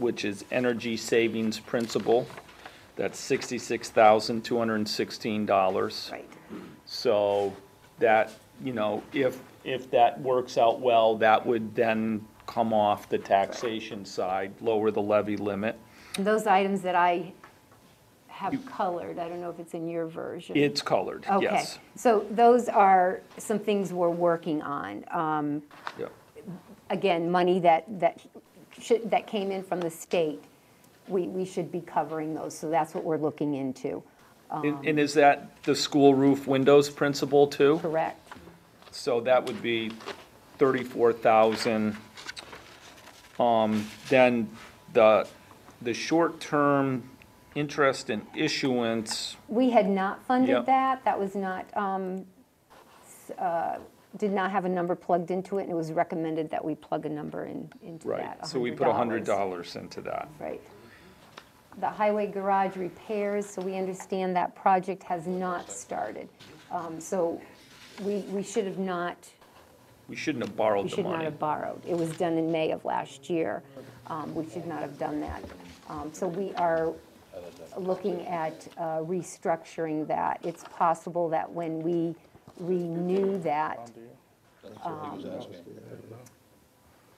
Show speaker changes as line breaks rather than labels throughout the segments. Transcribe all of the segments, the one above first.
which is energy savings principle. That's sixty-six thousand, two hundred and sixteen dollars.
Right.
So that, you know, if, if that works out well, that would then come off the taxation side, lower the levy limit.
And those items that I have colored, I don't know if it's in your version.
It's colored,
Okay,
yes.
so those are some things we're working on. Um,
Yeah.
Again, money that, that should, that came in from the state, we, we should be covering those, so that's what we're looking into, Um,
And and is that the school roof windows principle too?
correct?
So that would be thirty-four thousand. Um, then the, the short-term interest and issuance,
We had not
Yeah.
funded that, that was not, um, s- uh, did not have a number plugged into it, and it was recommended that we plug a number in, into that,
right, so we put a hundred
$100.
dollars into that.
Right. The highway garage repairs, so we understand that project has not started. Um, So we, we should have not,
We shouldn't have
we
borrowed the
should not
money.
have borrowed. It was done in May of last year. Um, We should not have done that. Um, So we are looking at uh, restructuring that. It's possible that when we renew that,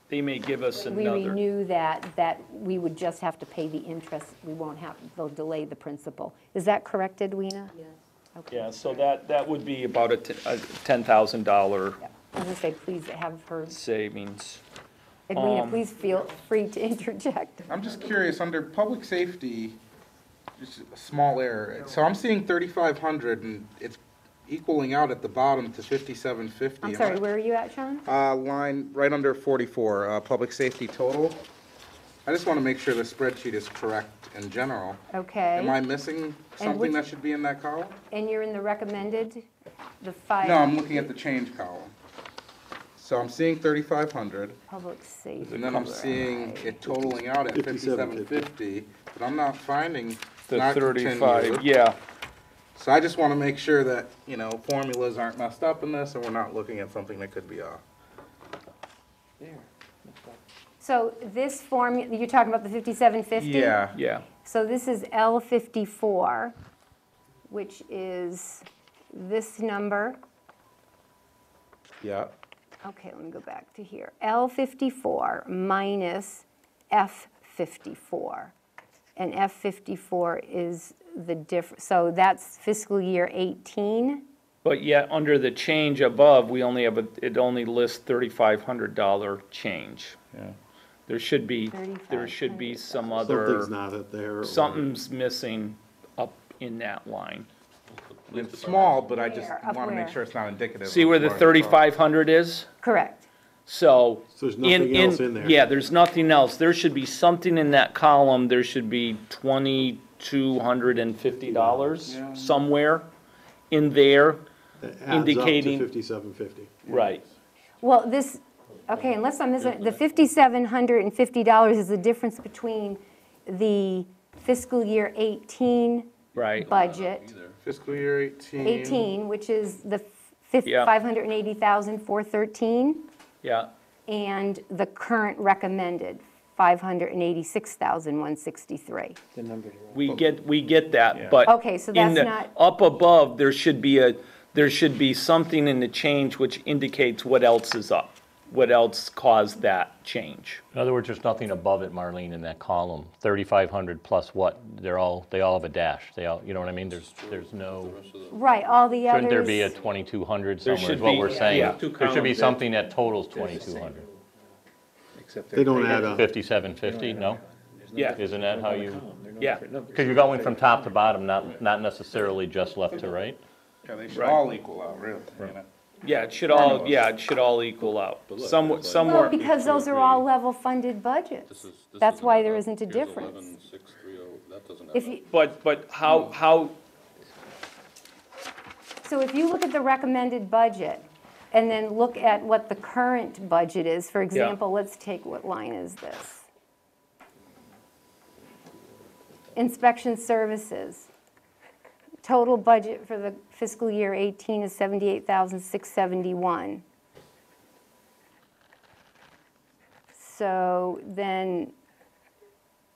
They may give us
we
another.
renew that, that we would just have to pay the interest. We won't have, they'll delay the principal. Is that correct, Edwina?
Yeah, so that, that would be about a t- a $10,000
I was gonna say, please have her,
savings.
Um,
Edwina, please feel free to interject.
I'm just curious, under public safety, just a small error, so I'm seeing thirty-five hundred and it's equaling out at the bottom to fifty-seven fifty.
I'm sorry, where are you at, Sean?
Uh, line, right under forty-four, uh, public safety total. I just wanna make sure the spreadsheet is correct in general. Am I
Okay.
missing something
which-
that should be in that column?
And you're in the recommended, the five?
No, I'm looking at the change column. So I'm seeing thirty-five hundred.
Public safety.
And then I'm seeing it totaling out at fifty-seven fifty, but I'm not finding
The
not
35,
continued.
yeah,
So I just wanna make sure that, you know, formulas aren't messed up in this and we're not looking at something that could be off.
So this form, you're talking about the 5750?
Yeah,
yeah.
So this is L54, which is this number.
yeah,
Okay, let me go back to here. L54 minus F54. And F54 is the diff, so that's fiscal year 18?
But yet, under the change above, we only have, a it only lists $3,500 change.
yeah.
There should be, there should be some
Something's
other,
not up there. or-
something's missing up in that line.
It's small, but I just
Where? Up
wanna
where?
make sure it's not indicative.
See
of
where the
it's from.
3,500 is?
Correct.
So.
So there's
in-
nothing else in there.
Yeah, there's nothing else. There should be something in that column. There should be twenty-two hundred and fifty dollars
Yeah.
somewhere in there.
That adds up to
indicating-
5750.
Right.
Well, this, okay, unless I'm missing, the $5,750 is the difference between the fiscal year 18
Right.
budget,
Fiscal year eighteen.
18, which is the
Yeah.
580,413.
Yeah,
and the current recommended, 586,163.
we get, we get that,
Yeah.
but.
Okay, so
in
that's
the-
not-
Up above, there should be a, there should be something in the change which indicates what else is up, what else caused that change.
In other words, there's nothing above it, Marlene, in that column. 3,500 plus what? They're all, they all have a dash. They all, you know what I mean? There's, there's no,
Right, all the others.
shouldn't there be a 2,200
There
somewhere is
should
what
be-
we're
yeah.
saying?
Two
There should be
columns.
something that totals 2,200.
They don't add up.
5750, no?
Yeah,
Isn't that how you,
yeah,
because you're going from top to bottom, not, not necessarily just left to right?
Yeah, they should
Right.
all equal out, really, you know?
yeah, it should all, yeah, it should all equal out. Somewhere,
Well,
somewhere,
because those are all level-funded budgets. That's why there isn't a difference. If you,
but, but how, how,
so if you look at the recommended budget, and then look at what the current budget is, for example, let's take, what line is this? Inspection services. Total budget for the fiscal year 18 is 78,671. So then